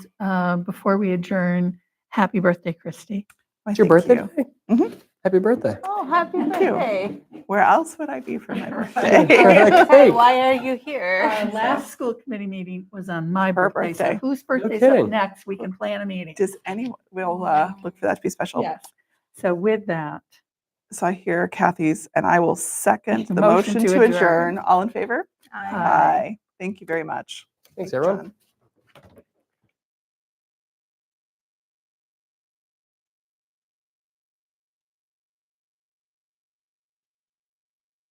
uh, before we adjourn, happy birthday, Christy. Why, It's your thank birthday? you. today? Mhm. Happy birthday. Oh, happy Thank you. birthday. Where else would I be for my birthday? Perfect. Hey, Why are you here? Our last school committee meeting was on my Her birthday. So birthday. whose birthday's up kidding. next? We can plan a meeting. Does anyone, we'll uh, look for that to be special. Yes. So with that, So I hear Kathy's, and I will second The the motion motion to to adjourn. adjourn. All in favor? Aye. Aye. Thank you very much. Thanks, Great everyone. job.